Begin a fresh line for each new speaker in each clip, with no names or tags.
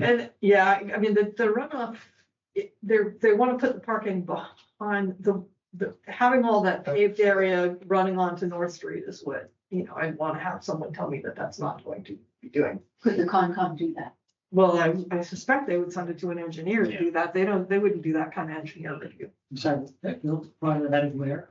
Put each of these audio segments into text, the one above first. And, yeah, I mean, the, the runoff, it- they're, they want to put the parking behind the, the, having all that paved area running onto North Street is what, you know, I want to have someone tell me that that's not going to be doing.
Could the Concom do that?
Well, I, I suspect they would send it to an engineer to do that. They don't, they wouldn't do that kind of engineer review.
I'm sorry, that built farther that is where?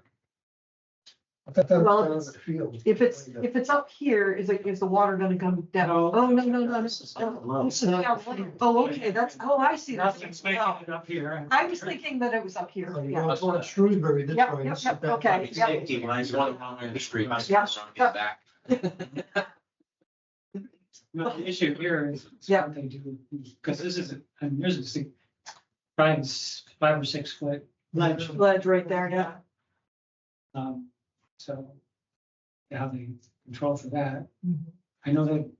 I thought that was
Well,
down in
it's-
the field.
If it's, if it's up here, is it, is the water gonna come down?
No.
Oh, no, no, no, this is,
down
oh,
low.
this is down low. Oh, okay, that's, oh, I see. that.
Nothing's making
Wow.
it up here.
I was thinking that it was up here,
Like,
yeah.
well, it's on Shrewsbury this
Yep,
way,
yep,
it's
yep,
that
okay,
way.
yep.
Safety lines, one along the street. must
Yeah.
get back.
No, the issue here is
Yeah.
what they do, because this is, a- and there's this thing, five, s- five or six foot ledge,
Ledge right there, yeah.
um, so. How they control for that, I know that,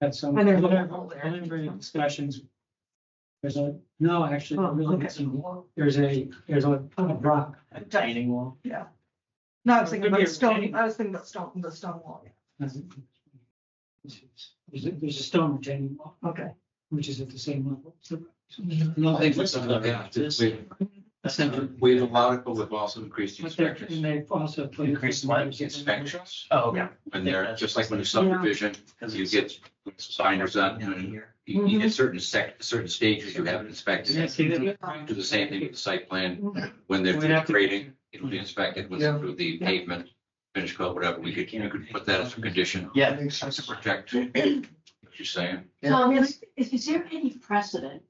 that's some.
And there's a
preliminary-
hole there.
preliminary Discussions. There's a, no, actually,
Oh,
there really
okay.
isn't. there's a, there's a a rock.
A retaining wall.
No, I was thinking about
Maybe a
stone,
retaining-
I was thinking about stone, the stone wall,
There's a, there's a stone retaining wall,
okay.
which is at the same level.
No,
No,
they put something like that. We- We've allowed it, but we've also increased
But they're, and
inspections.
they also. put-
Increased lines inspections.
Oh,
Yeah.
When they're, just like when a subdivision, you get signers on and you you get certain sec, certain stages you haven't inspected.
Yeah, see, they
Do the same thing with the site plan.
Mhm.
When they're
We'd have to- Mm-hmm.
grading, it'll be inspected with
Yeah.
through the pavement, finish coat, whatever. We could, you could put that as a condition.
Yeah.
Makes sense.
To protect what you're saying.
Yeah.
Tom, is, is is there any precedent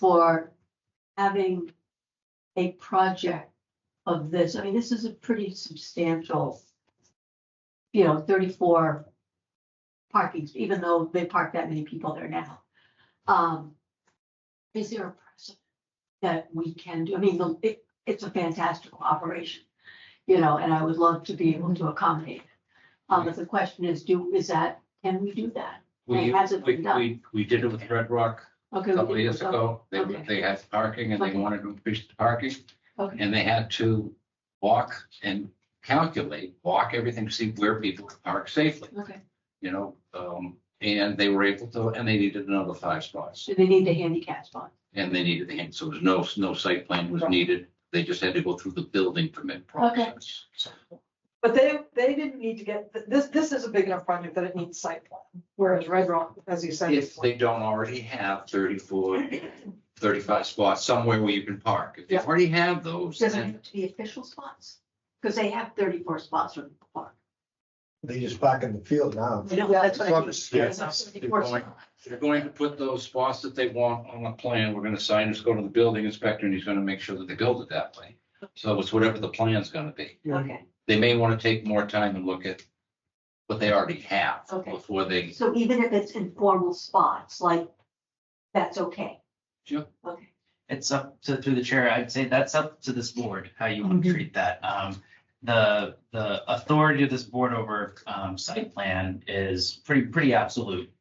for having a project of this? I mean, this is a pretty substantial, you know, thirty-four parkings, even though they park that many people there now. Um, is there a precedent that we can do? I mean, the- it, it's a fantastical operation, you know, and I would love to be able to accommodate. it. Um, but the question is, do, is that, can we do that?
We,
It hasn't
we,
been done.
we, we did it with Red Rock
Okay.
a
we
couple of
can
years
go.
ago. They,
Okay.
they had parking and they
Okay.
wanted to increase the parking.
Okay.
And they had to walk and calculate, walk everything, to see where people could park safely,
Okay,
you know? Um, and they were able to, and they needed another five spots.
so they need the handicap spot.
And they needed the, hand- so there's no, no site plan was needed. They just had to go through the building permit process.
But they, they didn't need to get, this, this is a big enough project that it needs site plan, whereas Red Rock, as you said.
If
is
they don't already have 34, 35 spots somewhere where you can park, if they
Yeah.
already have those,
Does it
then
have to be official spots? Because they have thirty-four spots from the park.
They just park in the field now.
You know, that's what I mean.
Yeah.
There's not 34
They're going-
spots.
They're going to put those spots that they want on a plan. We're gonna sign this, go to the building inspector, and he's gonna make sure that they build it that way. So it's whatever the plan's gonna be.
Okay,
They may wanna take more time and look at what they already have
Okay.
before they,
so even if it's informal spots, like, that's okay.
Sure.
Okay,
It's up to, through the chair, I'd say that's up to this board, how you want
Mhm.
to treat that. Um, the, the authority of this board over, um, site plan is pretty, pretty absolute.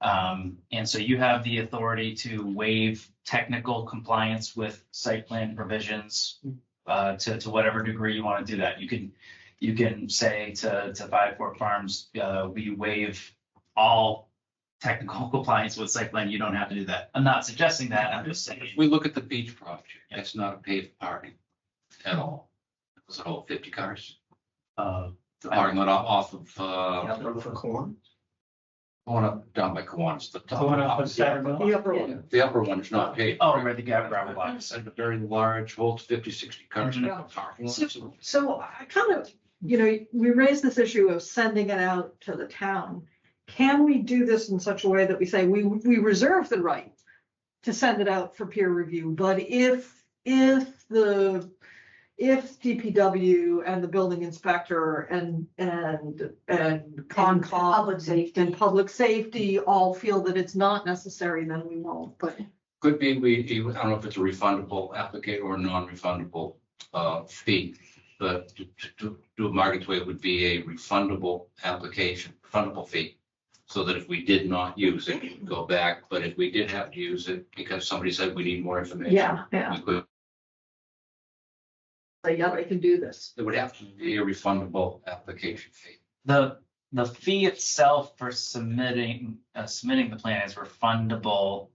Um, and so you have the authority to waive technical compliance with site plan provisions, uh, to, to whatever degree you want to do that. You can, you can say to, to Five Fork Farms, uh, we waive all technical compliance with site plan. You don't have to do that. I'm not suggesting that. I'm just saying.
if we look at the beach project, it's not a paved parking at all. It was a whole fifty cars.
Uh,
The parking lot off of, uh,
For corn.
going up down by Kiwanis, the top.
Going up on
Yeah.
Saturday.
The upper one.
The upper one is not paved.
Oh, right, the gravel gravel box.
And a very large, holds 50, 60 cars in the
Mm-hmm.
parking lot.
So-
So
So I kind of, you know, we raised this issue of sending it out to the town. Can we do this in such a way that we say we, we reserve the right to send it out for peer review, but if, if the, if DPW and the building inspector and, and, and
And
Concom.
public safety.
And public safety all feel that it's not necessary, then we won't, but
Could be, we, I don't know if it's a refundable applicate or a non-refundable uh, fee. But to, to- to do it Margaret's way would be a refundable application, refundable fee. So that if we did not use it, it would go back. But if we did have to use it because somebody said we need more information.
yeah, yeah.
We could,
So, Yeah, they can do this.
it would have to be a refundable application fee.
The, the fee itself for submitting, uh, submitting the plan is refundable